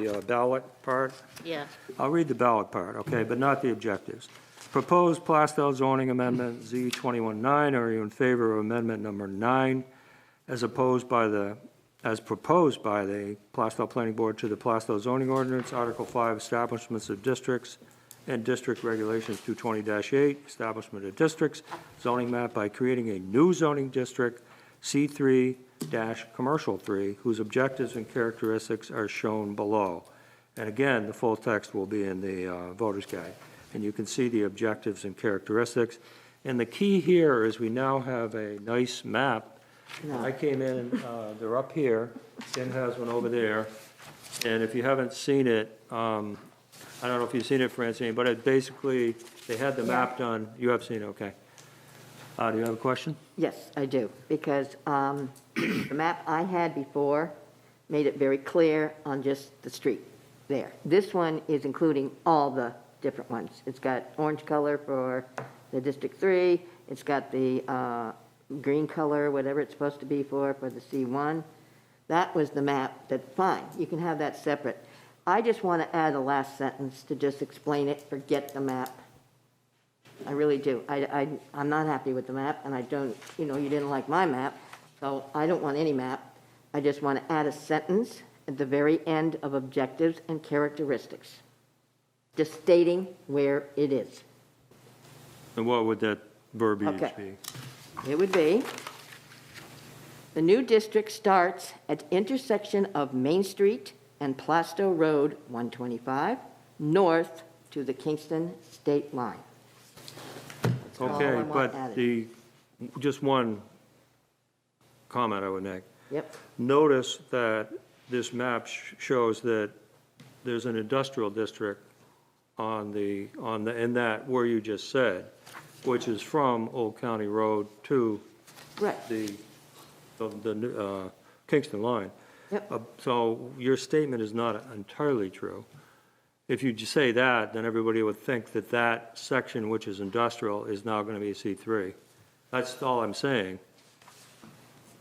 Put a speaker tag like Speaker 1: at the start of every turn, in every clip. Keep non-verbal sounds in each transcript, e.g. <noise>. Speaker 1: The uh, ballot part,
Speaker 2: Yeah,
Speaker 1: I'll read the ballot part, okay, but not the objectives. Proposed Plastel zoning amendment Z 21-9, are you in favor of amendment number nine as opposed by the, as proposed by the Plastel Planning Board to the Plastel zoning ordinance, Article 5, establishments of districts and district regulations 220-8, establishment of districts, zoning map by creating a new zoning district, C3-commercial 3, whose objectives and characteristics are shown below. And again, the full text will be in the uh, voter's guide, and you can see the objectives and characteristics. And the key here is we now have a nice map. I came in, uh, they're up here, Tim has one over there, and if you haven't seen it, um, I don't know if you've seen it, Francine, but it basically, they had the map done, you have seen it, okay. Uh, Do you have a question?
Speaker 3: Yes, I do, because um, <clears throat> the map I had before made it very clear on just the street there. This one is including all the different ones. It's got orange color for the District 3, it's got the uh, green color, whatever it's supposed to be for, for the C1. That was the map, that, fine, you can have that separate. I just want to add a last sentence to just explain it, forget the map. I really do. I, I, I'm not happy with the map, and I don't, you know, you didn't like my map, so I don't want any map. I just want to add a sentence at the very end of objectives and characteristics, just stating where it is.
Speaker 1: And what would that verbiage
Speaker 3: Okay.
Speaker 1: be?
Speaker 3: It would be, the new district starts at intersection of Main Street and Plastow Road 125, north to the Kingston state line. all I
Speaker 1: Okay,
Speaker 3: want
Speaker 1: but
Speaker 3: added.
Speaker 1: the, just one comment I would make.
Speaker 3: Yep,
Speaker 1: Notice that this map sh- shows that there's an industrial district on the, on the, in that where you just said, which is from Old County Road to
Speaker 3: right.
Speaker 1: the, the- the uh, Kingston line.
Speaker 3: Yep.
Speaker 1: Uh, So your statement is not entirely true. If you just say that, then everybody would think that that section, which is industrial, is now going to be C3. That's all I'm saying.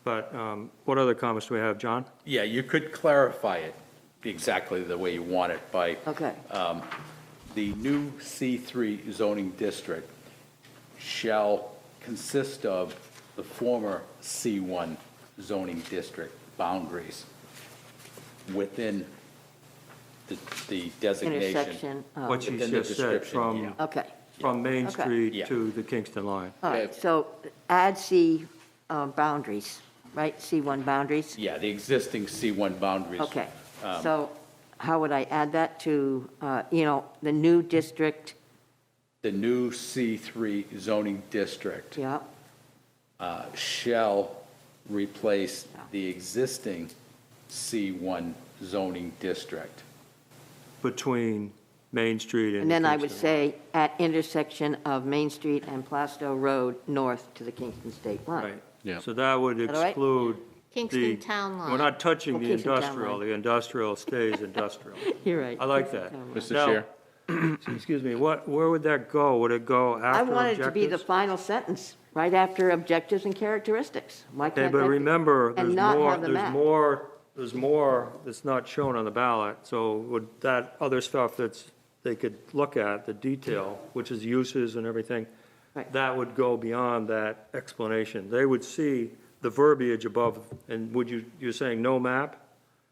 Speaker 1: But um, what other comments do we have, John?
Speaker 4: Yeah, you could clarify it exactly the way you want it by
Speaker 3: Okay,
Speaker 1: Uh,
Speaker 4: the new C3 zoning district shall consist of the former C1 zoning district boundaries within the- the designation.
Speaker 3: intersection of.
Speaker 1: What you
Speaker 4: Within the
Speaker 1: just said,
Speaker 4: description,
Speaker 1: from,
Speaker 4: yeah.
Speaker 3: Okay,
Speaker 1: from Main
Speaker 3: Oh. Okay.
Speaker 1: Street
Speaker 4: Yeah.
Speaker 1: to the Kingston line.
Speaker 3: all right, so add C uh, boundaries, right, C1 boundaries?
Speaker 4: Yeah, the existing C1 boundaries.
Speaker 3: Okay,
Speaker 1: Um,
Speaker 3: so how would I add that to, uh, you know, the new district,
Speaker 4: The new C3 zoning district
Speaker 3: yeah,
Speaker 4: uh, shall replace the existing C1 zoning district.
Speaker 1: Between Main Street and
Speaker 3: and then I would
Speaker 1: Kingston.
Speaker 3: say at intersection of Main Street and Plastow Road, north to the Kingston state line.
Speaker 1: Right.
Speaker 4: Yeah.
Speaker 1: So that would
Speaker 3: that all right?
Speaker 1: exclude the.
Speaker 2: Kingston Town Line.
Speaker 1: We're not touching
Speaker 3: Oh,
Speaker 1: the
Speaker 3: Kingston Town
Speaker 1: industrial.
Speaker 3: Line.
Speaker 1: The industrial stays
Speaker 3: <laughs>
Speaker 1: industrial.
Speaker 3: You're right.
Speaker 1: I like that.
Speaker 4: Mr.
Speaker 1: Now-
Speaker 4: Chair?
Speaker 1: <clears throat> Excuse me, what, where would that go? Would it go after
Speaker 3: I
Speaker 1: objectives?
Speaker 3: wanted to be the final sentence, right after objectives and characteristics. Why
Speaker 1: Okay,
Speaker 3: can't
Speaker 1: but
Speaker 3: that be-
Speaker 1: remember,
Speaker 3: and
Speaker 1: there's
Speaker 3: not
Speaker 1: more,
Speaker 3: have the
Speaker 1: there's
Speaker 3: map.
Speaker 1: more, there's more that's not shown on the ballot. So would that other stuff that's, they could look at, the detail, which is uses and everything,
Speaker 3: Right.
Speaker 1: that would go beyond that explanation. They would see the verbiage above, and would you, you're saying no map?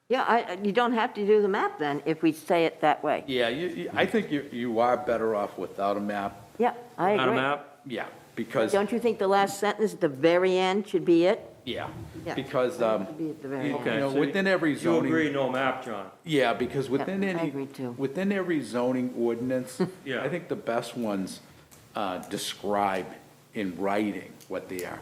Speaker 3: Yeah, I, you don't have to do the map then, if we say it that way.
Speaker 4: Yeah, you, you- I think you, you are better off without a map,
Speaker 3: Yeah, I agree.
Speaker 1: Not a map?
Speaker 4: yeah, because,
Speaker 3: Don't you think the last sentence at the very end should be it?
Speaker 4: yeah,
Speaker 3: Yeah.
Speaker 4: because, um,
Speaker 3: It'd be
Speaker 4: you
Speaker 3: at the very
Speaker 4: you
Speaker 3: end.
Speaker 1: Okay,
Speaker 4: know,
Speaker 1: so
Speaker 4: within every
Speaker 1: You agree,
Speaker 4: zoning,
Speaker 1: no map, John?
Speaker 4: yeah, because within
Speaker 3: I
Speaker 4: any,
Speaker 3: agree too.
Speaker 4: within every zoning
Speaker 3: <laughs>
Speaker 4: ordinance,
Speaker 1: Yeah.
Speaker 4: I think the best ones uh, describe in writing what they are.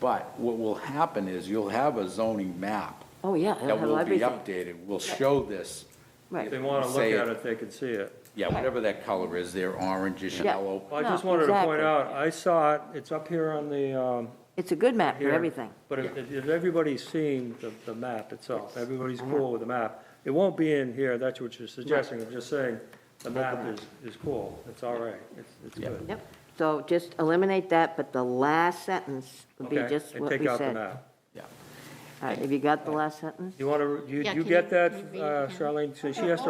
Speaker 4: But what will happen is you'll have a zoning map
Speaker 3: Oh, yeah, it'll
Speaker 4: that
Speaker 3: have
Speaker 4: will be
Speaker 3: everything.
Speaker 4: updated, will show this,
Speaker 1: If
Speaker 3: Right.
Speaker 1: they want to look
Speaker 4: Say it.
Speaker 1: at it, they can see it.
Speaker 4: yeah, whatever that color is, there, orangish,
Speaker 3: Yeah.
Speaker 4: yellow.
Speaker 1: Well, I
Speaker 3: No,
Speaker 1: just wanted to point out,
Speaker 3: exactly.
Speaker 1: I saw it, it's up here on the, um,
Speaker 3: It's a good map for
Speaker 1: here.
Speaker 3: everything.
Speaker 1: But if, if everybody's seen the, the map itself, everybody's
Speaker 4: Mm-hmm.
Speaker 1: cool with the map, it won't be in here, that's what you're suggesting, I'm just saying, the map is, is cool, it's all right, it's, it's good.
Speaker 3: Yep. So just eliminate that, but the last sentence would be
Speaker 1: Okay,
Speaker 3: just
Speaker 1: and
Speaker 3: what we
Speaker 1: take out the
Speaker 3: said.
Speaker 1: map.
Speaker 4: Yeah.
Speaker 3: All right, have you got the last sentence?
Speaker 1: You want to, you,
Speaker 2: Yeah,
Speaker 1: you
Speaker 2: can
Speaker 1: get
Speaker 2: you-
Speaker 1: that,
Speaker 2: can you read it,
Speaker 1: uh,
Speaker 2: Ken?
Speaker 1: Charlene? So she has to